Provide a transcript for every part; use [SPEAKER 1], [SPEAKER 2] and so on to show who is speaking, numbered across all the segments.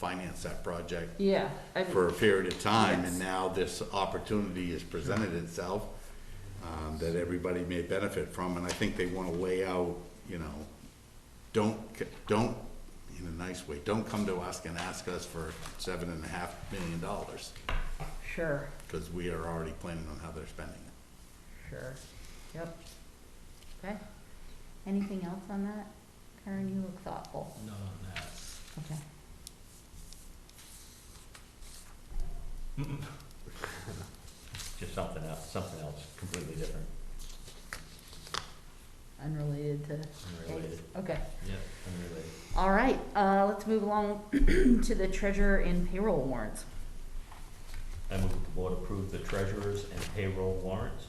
[SPEAKER 1] finance that project
[SPEAKER 2] Yeah, I
[SPEAKER 1] for
[SPEAKER 2] mean,
[SPEAKER 1] a period of time,
[SPEAKER 2] Yes.
[SPEAKER 1] and now this opportunity has presented itself um, that everybody may benefit from, and I think they want to lay out, you know, don't, c- don't, in a nice way, don't come to us and ask us for seven and a half million dollars,
[SPEAKER 2] sure,
[SPEAKER 1] because we are already planning on how they're spending it.
[SPEAKER 2] sure, yep.
[SPEAKER 3] Okay. Anything else on that? Karen, you look thoughtful.
[SPEAKER 4] Not on that.
[SPEAKER 3] Okay.
[SPEAKER 5] Just something else, something else completely different.
[SPEAKER 3] Unrelated to.
[SPEAKER 5] Unrelated.
[SPEAKER 3] Okay.
[SPEAKER 4] Yep.
[SPEAKER 5] Unrelated.
[SPEAKER 3] All right, uh, let's move along to the treasurer and payroll warrants.
[SPEAKER 5] I move that the board approve the treasurer's and payroll warrants.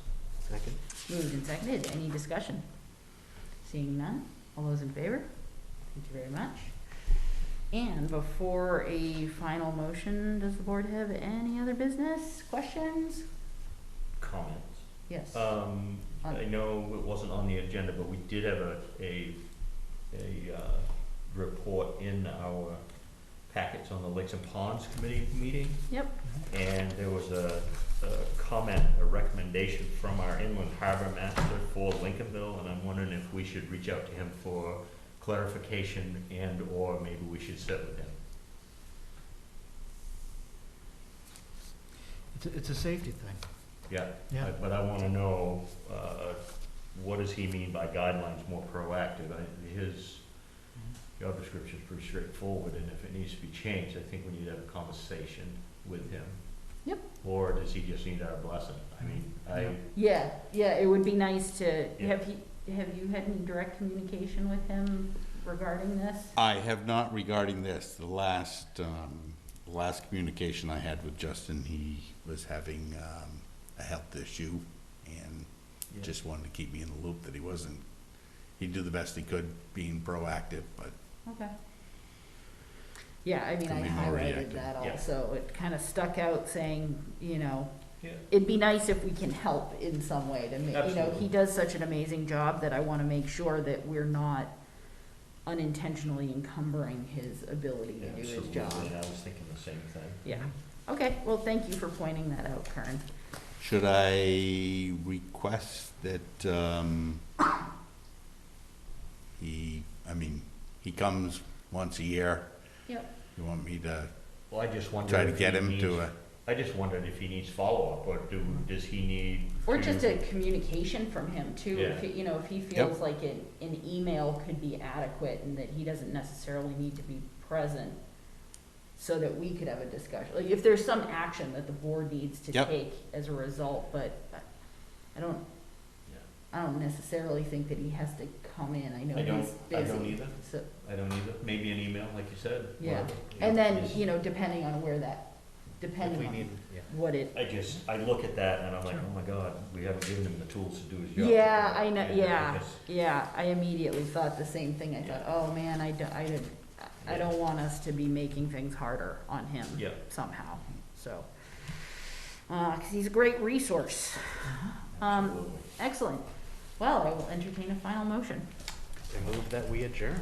[SPEAKER 4] Second?
[SPEAKER 3] Moved and seconded. Any discussion? Seeing none. All those in favor? Thank you very much. And before a final motion, does the board have any other business, questions?
[SPEAKER 5] Comments?
[SPEAKER 3] Yes.
[SPEAKER 5] Um,
[SPEAKER 3] On-
[SPEAKER 5] I know it wasn't on the agenda, but we did have a, a, a, uh, report in our packets on the Lakes and Ponds Committee meeting.
[SPEAKER 3] Yep.
[SPEAKER 5] And there was a, a comment, a recommendation from our inland harbor master for Lincolnville, and I'm wondering if we should reach out to him for clarification and/or maybe we should sit with him.
[SPEAKER 4] It's, a- it's a safety thing.
[SPEAKER 5] Yeah.
[SPEAKER 4] Yeah.
[SPEAKER 5] But- But I wanna know, uh, what does he mean by guidelines more proactive? I- His job description is pretty straightforward, and if it needs to be changed, I think we need to have a conversation with him.
[SPEAKER 3] Yep.
[SPEAKER 5] Or does he just need our blessing? I mean, I,
[SPEAKER 4] Yeah.
[SPEAKER 3] Yeah, yeah, it would be nice to,
[SPEAKER 5] Yeah.
[SPEAKER 3] have you, have you had any direct communication with him regarding this?
[SPEAKER 1] I have not regarding this, the last, um, last communication I had with Justin, he was having, um, a health issue, and
[SPEAKER 5] Yeah.
[SPEAKER 1] just wanted to keep me in the loop that he wasn't, he'd do the best he could being proactive, but
[SPEAKER 3] Okay. Yeah, I mean, I
[SPEAKER 1] Something more
[SPEAKER 3] highlighted
[SPEAKER 1] reactive.
[SPEAKER 3] that
[SPEAKER 5] Yeah.
[SPEAKER 3] also, it kinda stuck out saying, you know,
[SPEAKER 5] Yeah.
[SPEAKER 3] it'd be nice if we can help in some way to make, you know, he
[SPEAKER 5] Absolutely.
[SPEAKER 3] does such an amazing job that I wanna make sure that we're not unintentionally encumbering his ability to do his
[SPEAKER 5] Absolutely,
[SPEAKER 3] job.
[SPEAKER 5] and I was thinking the same thing.
[SPEAKER 3] Yeah, okay, well, thank you for pointing that out, Karen.
[SPEAKER 1] should I request that, um, he, I mean, he comes once a year,
[SPEAKER 3] Yep.
[SPEAKER 1] you want me to
[SPEAKER 5] Well, I just wondered.
[SPEAKER 1] try to
[SPEAKER 5] if
[SPEAKER 1] get
[SPEAKER 5] he
[SPEAKER 1] him
[SPEAKER 5] needs-
[SPEAKER 1] to uh, a,
[SPEAKER 5] I just wondered if he needs follow-up, or do, does he need?
[SPEAKER 3] Or
[SPEAKER 5] to-
[SPEAKER 3] just a communication from him too, if,
[SPEAKER 5] Yeah.
[SPEAKER 3] he- you know, if he feels like an, an email could be adequate and that he doesn't necessarily need to be present so that we could have a discussion, like if there's some action that the board needs to
[SPEAKER 1] Yep.
[SPEAKER 3] take as a result, but I don't,
[SPEAKER 5] Yeah.
[SPEAKER 3] I don't necessarily think that he has to come in, I know
[SPEAKER 5] I don't,
[SPEAKER 3] he's busy.
[SPEAKER 5] I don't either,
[SPEAKER 3] So,
[SPEAKER 5] I don't either, maybe an email, like you said.
[SPEAKER 3] Yeah.
[SPEAKER 5] whatever.
[SPEAKER 3] and then,
[SPEAKER 5] Just-
[SPEAKER 3] you know, depending on where that,
[SPEAKER 4] If
[SPEAKER 3] depending
[SPEAKER 4] we need,
[SPEAKER 3] on
[SPEAKER 4] yeah.
[SPEAKER 3] what it
[SPEAKER 5] I just, I look at that and I'm like, oh my God, we haven't given him the tools to do his job.
[SPEAKER 3] Yeah, I know,
[SPEAKER 5] And
[SPEAKER 3] yeah,
[SPEAKER 5] because-
[SPEAKER 3] yeah, I immediately thought the same thing, I thought, oh man, I don't, I didn't, I don't want us to be making things harder on him
[SPEAKER 5] Yeah.
[SPEAKER 3] somehow, so. Uh 'cause cause he's a great resource. Um,
[SPEAKER 5] Absolutely.
[SPEAKER 3] excellent, well, I will entertain a final motion.
[SPEAKER 4] I move that we adjourn.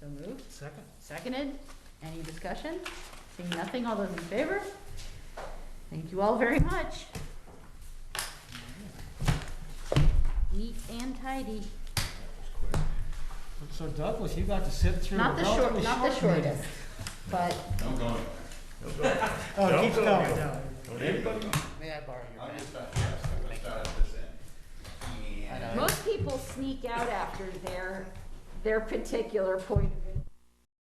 [SPEAKER 3] So moved,
[SPEAKER 4] Second.
[SPEAKER 3] seconded, any discussion? Seeing nothing, all those in favor? Thank you all very much. Neat and tidy.
[SPEAKER 4] So Douglas, you got to sit through.
[SPEAKER 3] Not
[SPEAKER 4] a
[SPEAKER 3] the short,
[SPEAKER 4] relatively
[SPEAKER 3] not the
[SPEAKER 4] meeting.
[SPEAKER 3] shortest, but
[SPEAKER 4] Oh, it keeps
[SPEAKER 5] Don't
[SPEAKER 4] going.
[SPEAKER 1] May I borrow your? I'll just start, yes, I'll start at this end. And-
[SPEAKER 3] most people sneak out after their, their particular point